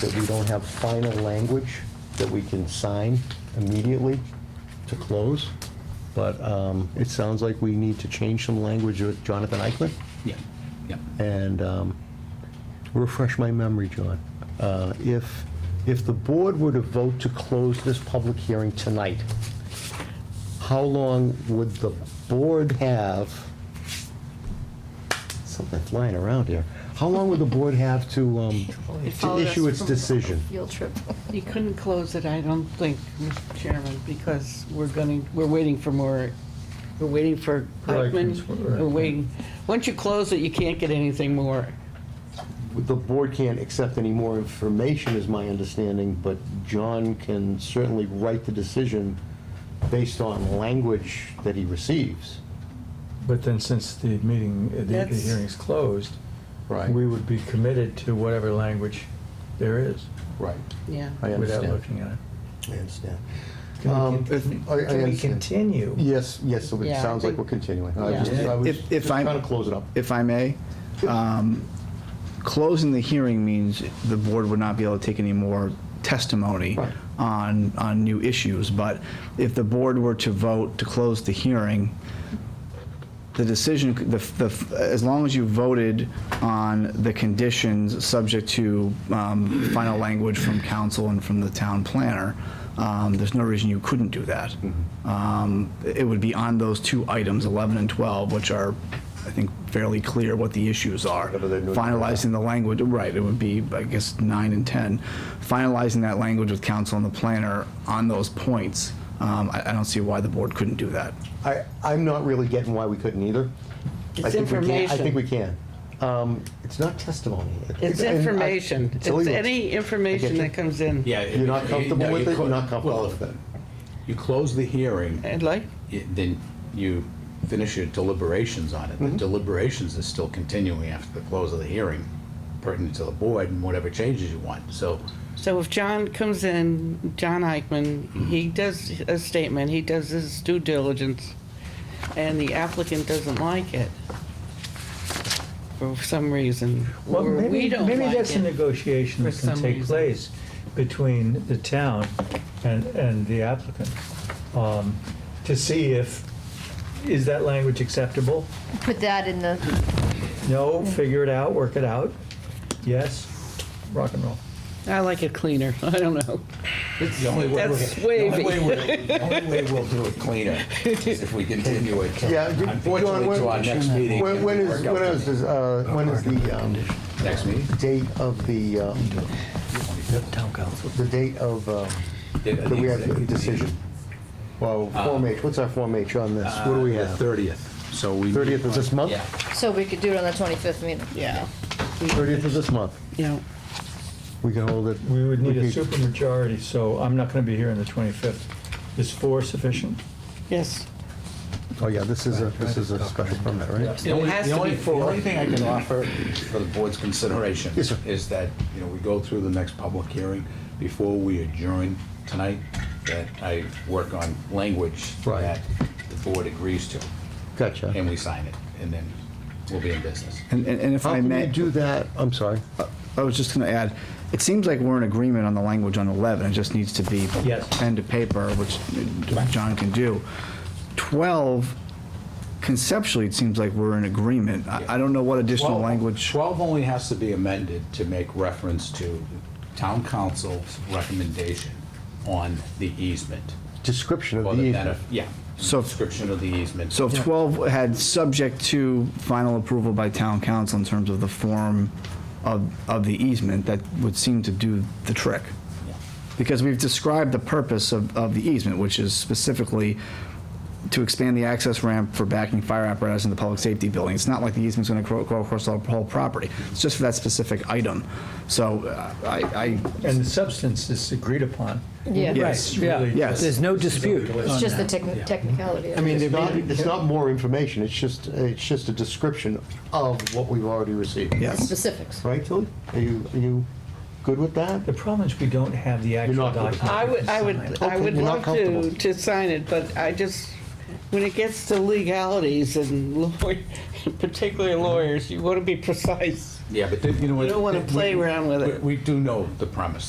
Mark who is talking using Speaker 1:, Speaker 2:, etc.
Speaker 1: that we don't have final language that we can sign immediately to close, but um, it sounds like we need to change some language with Jonathan Eichman,
Speaker 2: Yeah, yeah.
Speaker 1: and um, refresh my memory, John. Uh, If, if the board were to vote to close this public hearing tonight, how long would the board have, something flying around here, how long would the board have to, um, to
Speaker 3: followed us
Speaker 1: issue its
Speaker 3: from-
Speaker 1: decision?
Speaker 3: Field trip.
Speaker 4: You couldn't close it, I don't think, Mr. Chairman, because we're going to, we're waiting for more, we're waiting for Eichmann. We're waiting, once you close it, you can't get anything more.
Speaker 1: The board can't accept any more information, is my understanding, but John can certainly write the decision based on language that he receives.
Speaker 5: But then since the meeting, the- the
Speaker 4: That's-
Speaker 5: hearing's closed,
Speaker 1: Right.
Speaker 5: we would be committed to whatever language there is
Speaker 1: Right.
Speaker 4: Yeah.
Speaker 1: I
Speaker 5: without
Speaker 1: understand.
Speaker 5: looking at it.
Speaker 1: I understand. Um,
Speaker 5: Can we
Speaker 1: if- I- I
Speaker 5: con- Can we
Speaker 1: understand.
Speaker 5: continue?
Speaker 1: Yes, yes, so it
Speaker 4: Yeah, I
Speaker 1: sounds like
Speaker 4: think-
Speaker 1: we're continuing. I
Speaker 4: Yeah.
Speaker 1: was just- I was
Speaker 6: If- if
Speaker 1: just
Speaker 6: I'm-
Speaker 1: Trying to close it up.
Speaker 6: If I may, um, closing the hearing means the board would not be able to take any more testimony
Speaker 1: Right.
Speaker 6: on, on new issues. But if the board were to vote to close the hearing, the decision, the, the, as long as you voted on the conditions subject to um, final language from council and from the town planner, um, there's no reason you couldn't do that.
Speaker 1: Mm-hmm.
Speaker 6: Um, It would be on those two items, 11 and 12, which are, I think, fairly clear what the issues are.
Speaker 1: Whatever they're doing.
Speaker 6: Finalizing the language, right, it would be, I guess, 9 and 10. Finalizing that language with council and the planner on those points, um, I I don't see why the board couldn't do that.
Speaker 1: I, I'm not really getting why we couldn't either. I
Speaker 4: It's
Speaker 1: think we can- I
Speaker 4: information.
Speaker 1: think we can. Um, It's not testimony.
Speaker 4: It's
Speaker 1: And I-
Speaker 4: information. It's
Speaker 1: illegal.
Speaker 4: any
Speaker 1: I
Speaker 4: information
Speaker 1: get you.
Speaker 4: that comes in.
Speaker 2: Yeah.
Speaker 1: You're not comfortable
Speaker 2: no,
Speaker 1: with
Speaker 2: you
Speaker 1: it?
Speaker 2: clo-
Speaker 1: You're not comfortable
Speaker 2: well,
Speaker 1: with it.
Speaker 2: You close the hearing,
Speaker 4: I'd like,
Speaker 2: it- then you finish your deliberations on it. The deliberations are still continuing after the close of the hearing pertinent to the board and whatever changes you want. So
Speaker 4: so if John comes in, John Eichman, he does a statement, he does his due diligence, and the applicant doesn't like it for some reason,
Speaker 5: Well,
Speaker 4: or we
Speaker 5: maybe,
Speaker 4: don't
Speaker 5: maybe
Speaker 4: like
Speaker 5: that's a
Speaker 4: it.
Speaker 5: negotiation
Speaker 4: for
Speaker 5: that can
Speaker 4: some
Speaker 5: take
Speaker 4: reason.
Speaker 5: place between the town and, and the applicant, um, to see if, is that language acceptable?
Speaker 3: Put that in the,
Speaker 5: No, figure it out, work it out. Yes, rock and roll.
Speaker 4: I like it cleaner, I don't know.
Speaker 2: the only way we're-
Speaker 4: That's
Speaker 2: the
Speaker 4: wavy.
Speaker 2: only way we're- The only way we'll do it cleaner is if we continue it. till-
Speaker 1: Yeah, you- John,
Speaker 2: Unfortunately,
Speaker 1: when-
Speaker 2: to our next meeting.
Speaker 1: When
Speaker 2: and
Speaker 1: when
Speaker 2: we
Speaker 1: is,
Speaker 2: work out
Speaker 1: when
Speaker 2: the
Speaker 1: is, this, uh, when is the um,
Speaker 2: Next meeting?
Speaker 1: date of the, uh,
Speaker 5: Town council.
Speaker 1: the date of, uh,
Speaker 2: The-
Speaker 1: that we have
Speaker 2: the-
Speaker 1: a decision? Well,
Speaker 2: Uh,
Speaker 1: Form H, what's our Form H on this? What do we
Speaker 2: The
Speaker 1: have?
Speaker 2: 30th, so we.
Speaker 1: 30th of this month?
Speaker 2: Uh, Yeah.
Speaker 3: so we could do it on the 25th meeting.
Speaker 4: Yeah.
Speaker 1: 30th of this month.
Speaker 4: Yeah.
Speaker 1: We can hold it.
Speaker 5: We would need a
Speaker 1: could-
Speaker 5: supermajority, so I'm not gonna be here on the 25th. Is four sufficient?
Speaker 4: Yes.
Speaker 1: Oh, yeah, this is a, this is a special permit, right?
Speaker 2: The only-
Speaker 4: has
Speaker 2: the
Speaker 4: to
Speaker 2: only-
Speaker 4: be
Speaker 2: The only thing I can offer for the board's consideration
Speaker 1: Yes, sir.
Speaker 2: is that, you know, we go through the next public hearing before we adjourn tonight, that I work on language
Speaker 1: Right.
Speaker 2: that the board agrees to,
Speaker 1: Gotcha.
Speaker 2: and we sign it, and then we'll be in business.
Speaker 6: And, and and if
Speaker 1: How
Speaker 6: I
Speaker 1: can
Speaker 6: may.
Speaker 1: we do that? Uh, I'm sorry.
Speaker 6: I was just going to add, it seems like we're in agreement on the language on 11, it just needs to be
Speaker 5: Yes.
Speaker 6: pen to paper, which John can do. 12, conceptually, it seems like we're in agreement. I I don't know what additional
Speaker 2: 12
Speaker 6: language.
Speaker 2: 12 only has to be amended to make reference to town council's recommendation on the easement.
Speaker 1: Description
Speaker 2: or
Speaker 1: of the easement.
Speaker 2: benef- Yeah.
Speaker 6: So-
Speaker 2: Description of the easement.
Speaker 6: So if 12 had subject to final approval by town council in terms of the form of, of the easement, that would seem to do the trick. Because we've described the purpose of, of the easement, which is specifically to expand the access ramp for backing fire apparatus in the public safety building. It's not like the easement's gonna go go across the whole property. It's just for that specific item. So uh, I, I,
Speaker 5: And the substance is agreed upon.
Speaker 3: Yeah.
Speaker 6: Yes.
Speaker 5: It's really
Speaker 6: Yeah.
Speaker 5: just-
Speaker 6: There's
Speaker 7: no dispute.
Speaker 3: It's just the techni- technicality. of
Speaker 1: I
Speaker 3: it.
Speaker 1: mean, it's not, it's not more information, it's just, it's just a description of what we've already received.
Speaker 6: yes.
Speaker 3: Specifics.
Speaker 1: Right, Tilly? Are you, are you good with that?
Speaker 5: The problem is we don't have the actual
Speaker 1: not gonna-
Speaker 5: document.
Speaker 4: I would, I
Speaker 5: Sign
Speaker 4: would,
Speaker 5: it.
Speaker 4: I would
Speaker 1: You're not
Speaker 4: love to,
Speaker 1: comfortable.
Speaker 4: to sign it, but I just, when it gets to legalities and lawyer, particularly lawyers, you want to be precise.
Speaker 2: Yeah, but then, you know what?
Speaker 4: I don't wanna
Speaker 2: we-
Speaker 4: play around with it.
Speaker 2: we- We do know the premise,